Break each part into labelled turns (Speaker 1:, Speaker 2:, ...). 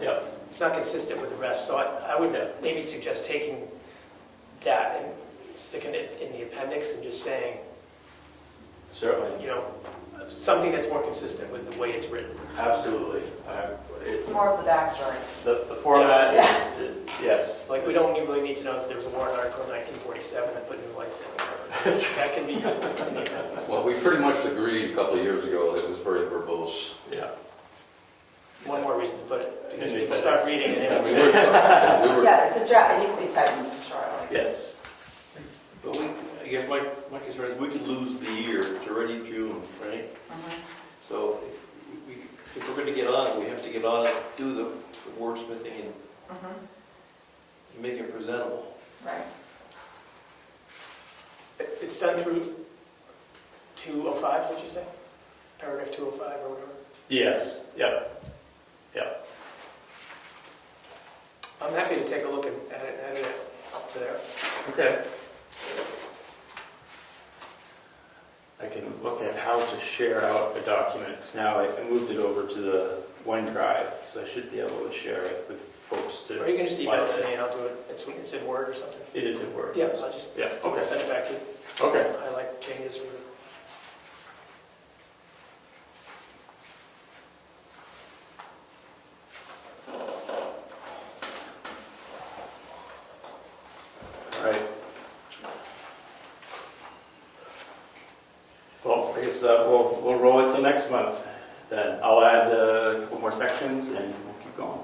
Speaker 1: Yeah, it's not consistent with the rest, so I, I would uh, maybe suggest taking that and sticking it in the appendix and just saying,
Speaker 2: Certainly,
Speaker 1: you know, something that's more consistent with the way it's written.
Speaker 2: absolutely. I- It's,
Speaker 3: It's more of the backstory.
Speaker 2: the, the format, is- it- yes.
Speaker 1: Like, we don't need- really need to know that there was a warrant article in 1947 that put new lights in. That can be,
Speaker 4: Well, we pretty much agreed a couple of years ago that it was very verbose.
Speaker 2: Yeah.
Speaker 1: one more reason to put it, because people start reading it.
Speaker 4: And
Speaker 1: and-
Speaker 4: we were, we were,
Speaker 3: Yeah, it's a draft, it needs to be tightened, sure.
Speaker 2: Yes.
Speaker 5: But we, I guess my, my concern is we could lose the year, it's already June, right? So if we, if we're gonna get on, we have to get on and do the wordsmithing and make it presentable.
Speaker 3: Right.
Speaker 1: It- It's done through 205, did you say? Paragraph 205 or whatever.
Speaker 2: Yes, yep.
Speaker 1: I'm happy to take a look and add it, add it up to there.
Speaker 2: Okay. I can look at how to share out the document, because now I I moved it over to the OneDrive, so I should be able to share it with folks to.
Speaker 1: Or you can just email it to me and I'll do it. It's, it's in Word or something.
Speaker 2: It is in Word.
Speaker 1: Yeah, I'll just
Speaker 2: Yeah, okay,
Speaker 1: send it back to you.
Speaker 2: okay.
Speaker 1: I like changes or
Speaker 2: All right. Well, I guess that we'll, we'll roll it till next month, then I'll add uh, a couple more sections and we'll keep going.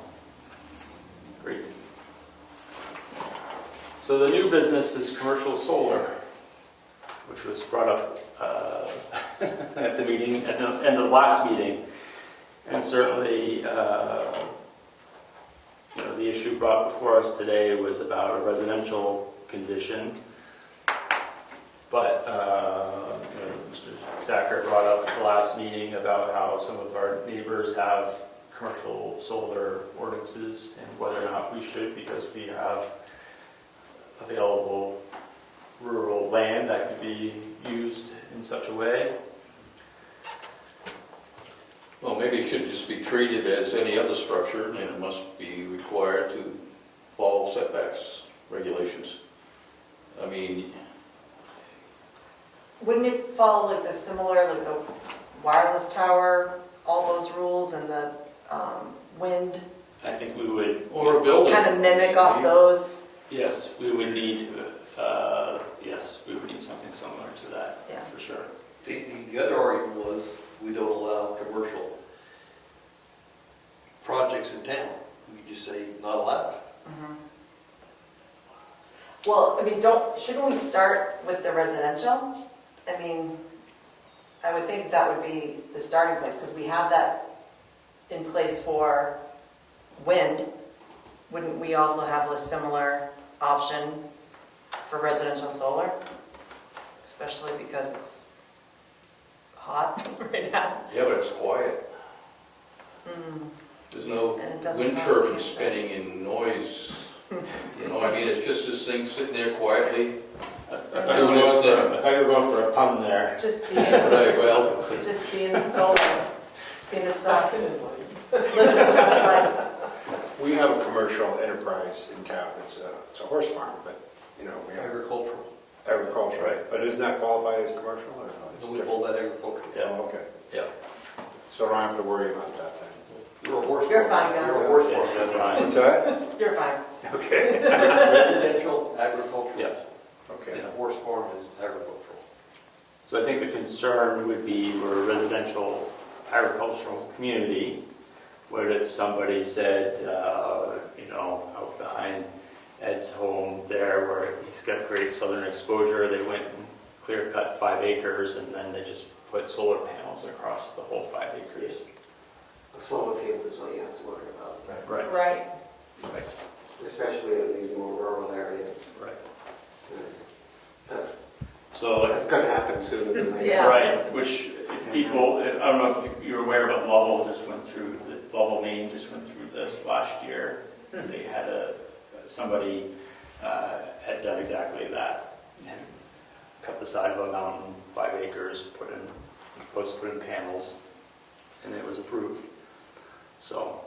Speaker 2: Great. So the new business is commercial solar, which was brought up uh, at the meeting, at the end of last meeting. And certainly, uh, you know, the issue brought before us today was about a residential condition. But, uh, you know, Mr. Sacker brought up at the last meeting about how some of our neighbors have commercial solar ordinances and whether or not we should, because we have available rural land that could be used in such a way.
Speaker 4: well, maybe it should just be treated as any other structure, and it must be required to follow setbacks regulations. I mean,
Speaker 3: Wouldn't it follow like the similar, like the wireless tower, all those rules and the um, wind?
Speaker 2: I think we would.
Speaker 4: or a building.
Speaker 3: Kind of mimic off those,
Speaker 2: Yes, we would need, uh, yes, we would need something similar to that,
Speaker 3: yeah.
Speaker 2: for sure.
Speaker 5: The, the- the other argument was, we don't allow commercial projects in town. We could just say, not allowed.
Speaker 3: Mhm. Well, I mean, don't, shouldn't we start with the residential? I mean, I would think that would be the starting place, because we have that in place for wind. Wouldn't we also have a similar option for residential solar? Especially because it's hot right now.
Speaker 4: Yeah, but it's quiet.
Speaker 3: Hmm,
Speaker 4: There's no
Speaker 3: And it doesn't
Speaker 4: wind
Speaker 3: cause
Speaker 4: turbine
Speaker 3: cancer.
Speaker 4: spinning and noise. You know, I mean, it's just this thing sitting there quietly.
Speaker 2: I thought you were going for, I thought you were going for a pun there.
Speaker 3: Just
Speaker 4: But
Speaker 3: being,
Speaker 4: I- well,
Speaker 3: just being solar, skin and soft, living its best life.
Speaker 6: We have a commercial enterprise in town, it's a, it's a horse farm, but, you know, we have
Speaker 5: Agricultural.
Speaker 6: agricultural.
Speaker 2: Right.
Speaker 6: But isn't that qualified as commercial or no? It's
Speaker 5: We
Speaker 6: different.
Speaker 5: call that agricultural.
Speaker 2: Yeah.
Speaker 6: Oh, okay.
Speaker 2: Yeah.
Speaker 6: So I don't have to worry about that then.
Speaker 5: You're a horse.
Speaker 3: You're
Speaker 5: farmer.
Speaker 3: fine, guys.
Speaker 5: You're a horse
Speaker 2: Yes,
Speaker 5: farmer.
Speaker 2: that's right.
Speaker 6: What's that?
Speaker 3: You're fine.
Speaker 6: Okay.
Speaker 5: Residential, agricultural.
Speaker 2: Yeah.
Speaker 6: Okay.
Speaker 5: And a horse farm is agricultural.
Speaker 2: So I think the concern would be we're a residential agricultural community. What if somebody said, uh, you know, out behind Ed's home there where he's got great southern exposure, they went and clear cut five acres and then they just put solar panels across the whole five acres?
Speaker 7: A solar field is what you have to worry about,
Speaker 2: Right,
Speaker 3: Right.
Speaker 2: right,
Speaker 7: especially in these more rural areas.
Speaker 2: right.
Speaker 7: But
Speaker 2: So
Speaker 7: That's going to happen sooner than later.
Speaker 3: Yeah.
Speaker 2: Right, which if people, I don't know if you're aware, but Lovell just went through, Lovell, Maine just went through this last year. They had a, somebody uh, had done exactly that. Cut the side of a mountain, five acres, put in, supposed to put in panels, and it was approved. So